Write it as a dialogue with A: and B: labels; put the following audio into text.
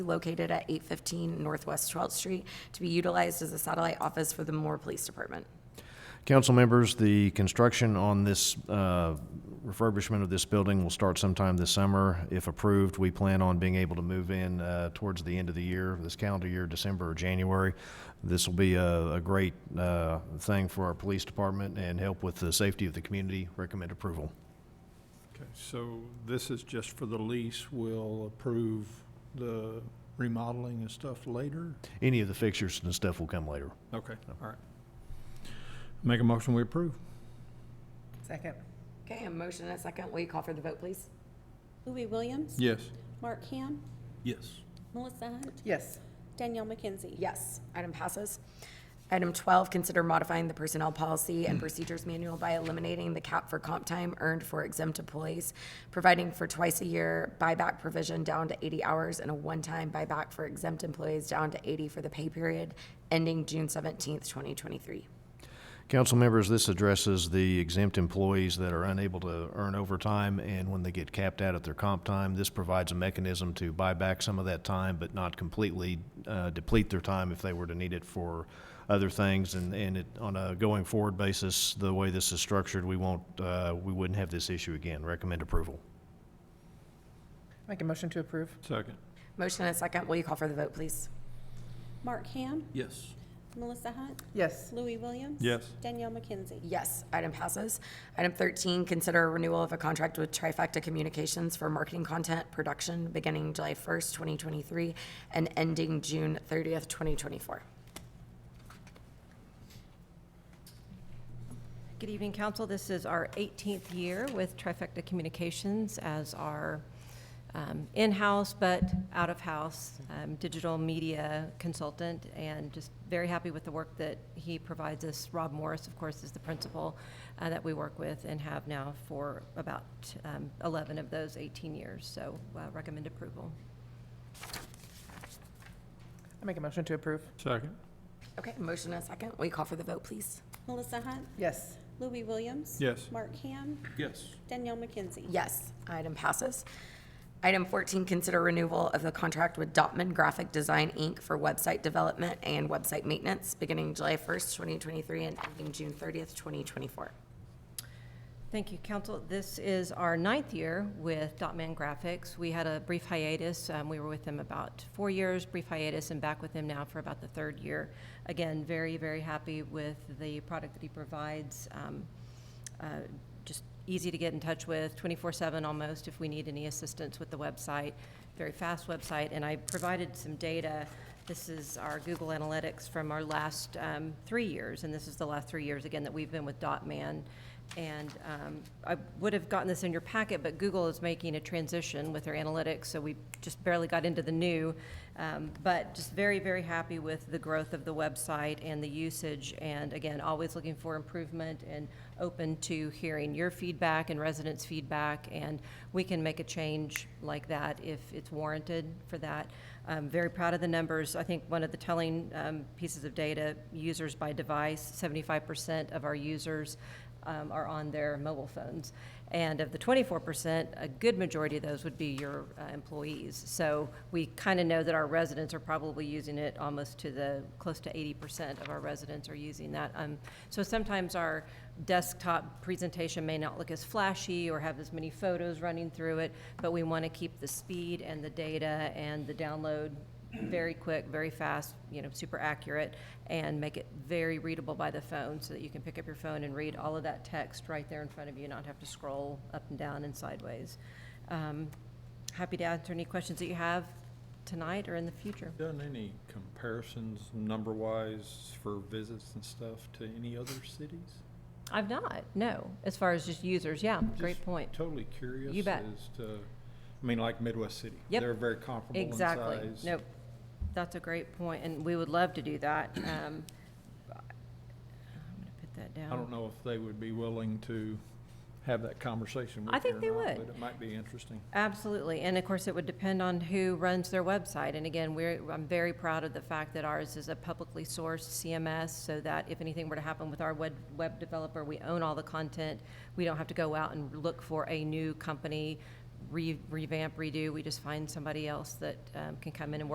A: located at 815 Northwest 12th Street to be utilized as a satellite office for the Moore Police Department.
B: Council members, the construction on this uh, refurbishment of this building will start sometime this summer. If approved, we plan on being able to move in uh, towards the end of the year, this calendar year, December or January. This will be a a great uh, thing for our police department and help with the safety of the community. Recommend approval.
C: Okay, so this is just for the lease. We'll approve the remodeling and stuff later?
B: Any of the fixtures and stuff will come later.
C: Okay, all right. Make a motion, we approve.
D: Second.
A: Okay, a motion and a second. Will you call for the vote, please?
E: Louis Williams.
C: Yes.
E: Mark Ham.
C: Yes.
E: Melissa Hunt.
D: Yes.
E: Danielle McKenzie.
A: Yes. Item passes. Item 12, consider modifying the Personnel Policy and Procedures Manual by eliminating the cap for comp time earned for exempt employees, providing for twice-a-year buyback provision down to 80 hours and a one-time buyback for exempt employees down to 80 for the pay period ending June 17th, 2023.
B: Council members, this addresses the exempt employees that are unable to earn overtime, and when they get capped out at their comp time, this provides a mechanism to buy back some of that time, but not completely uh, deplete their time if they were to need it for other things. And, and it, on a going forward basis, the way this is structured, we won't, uh, we wouldn't have this issue again. Recommend approval.
D: Make a motion to approve.
C: Second.
A: Motion and a second. Will you call for the vote, please?
E: Mark Ham.
C: Yes.
E: Melissa Hunt.
D: Yes.
E: Louis Williams.
C: Yes.
E: Danielle McKenzie.
A: Yes, item passes. Item 13, consider a renewal of a contract with Trifecta Communications for marketing content production beginning July 1st, 2023, and ending June 30th, 2024.
F: Good evening, council. This is our 18th year with Trifecta Communications as our um, in-house but out-of-house um, digital media consultant, and just very happy with the work that he provides us. Rob Morris, of course, is the principal uh, that we work with and have now for about um, 11 of those 18 years, so uh, recommend approval.
D: I make a motion to approve.
C: Second.
A: Okay, motion and a second. Will you call for the vote, please?
E: Melissa Hunt.
D: Yes.
E: Louis Williams.
C: Yes.
E: Mark Ham.
C: Yes.
E: Danielle McKenzie.
A: Yes, item passes. Item 14, consider renewal of the contract with Dotman Graphic Design, Inc. for website development and website maintenance beginning July 1st, 2023, and ending June 30th, 2024.
F: Thank you, council. This is our ninth year with Dotman Graphics. We had a brief hiatus. Um, we were with them about four years, brief hiatus, and back with them now for about the third year. Again, very, very happy with the product that he provides. Um, uh, just easy to get in touch with, 24/7 almost, if we need any assistance with the website. Very fast website, and I provided some data. This is our Google Analytics from our last um, three years, and this is the last three years, again, that we've been with Dotman. And um, I would have gotten this in your packet, but Google is making a transition with their analytics, so we just barely got into the new. Um, But just very, very happy with the growth of the website and the usage, and again, always looking for improvement and open to hearing your feedback and residents' feedback, and we can make a change like that if it's warranted for that. I'm very proud of the numbers. I think one of the telling um, pieces of data, users by device, 75% of our users um, are on their mobile phones. And of the 24%, a good majority of those would be your uh, employees. So we kind of know that our residents are probably using it almost to the, close to 80% of our residents are using that. Um, So sometimes our desktop presentation may not look as flashy or have as many photos running through it, but we want to keep the speed and the data and the download very quick, very fast, you know, super accurate, and make it very readable by the phone so that you can pick up your phone and read all of that text right there in front of you, not have to scroll up and down and sideways. Um, Happy to answer any questions that you have tonight or in the future.
C: Done any comparisons number-wise for visits and stuff to any other cities?
F: I've not, no, as far as just users, yeah, great
C: Just
F: point.
C: Totally curious
F: You bet.
C: as to, I mean, like Midwest City.
F: Yep.
C: They're very comparable in size.
F: Exactly. Nope. That's a great point, and we would love to do that. Um, I'm gonna put that down.
C: I don't know if they would be willing to have that conversation with you
F: I think
C: or
F: they
C: not,
F: would.
C: But it might be interesting.
F: Absolutely, and of course, it would depend on who runs their website. And again, we're, I'm very proud of the fact that ours is a publicly sourced CMS, so that if anything were to happen with our web, web developer, we own all the content. We don't have to go out and look for a new company, re- revamp, redo. We just find somebody else that um, can come in and work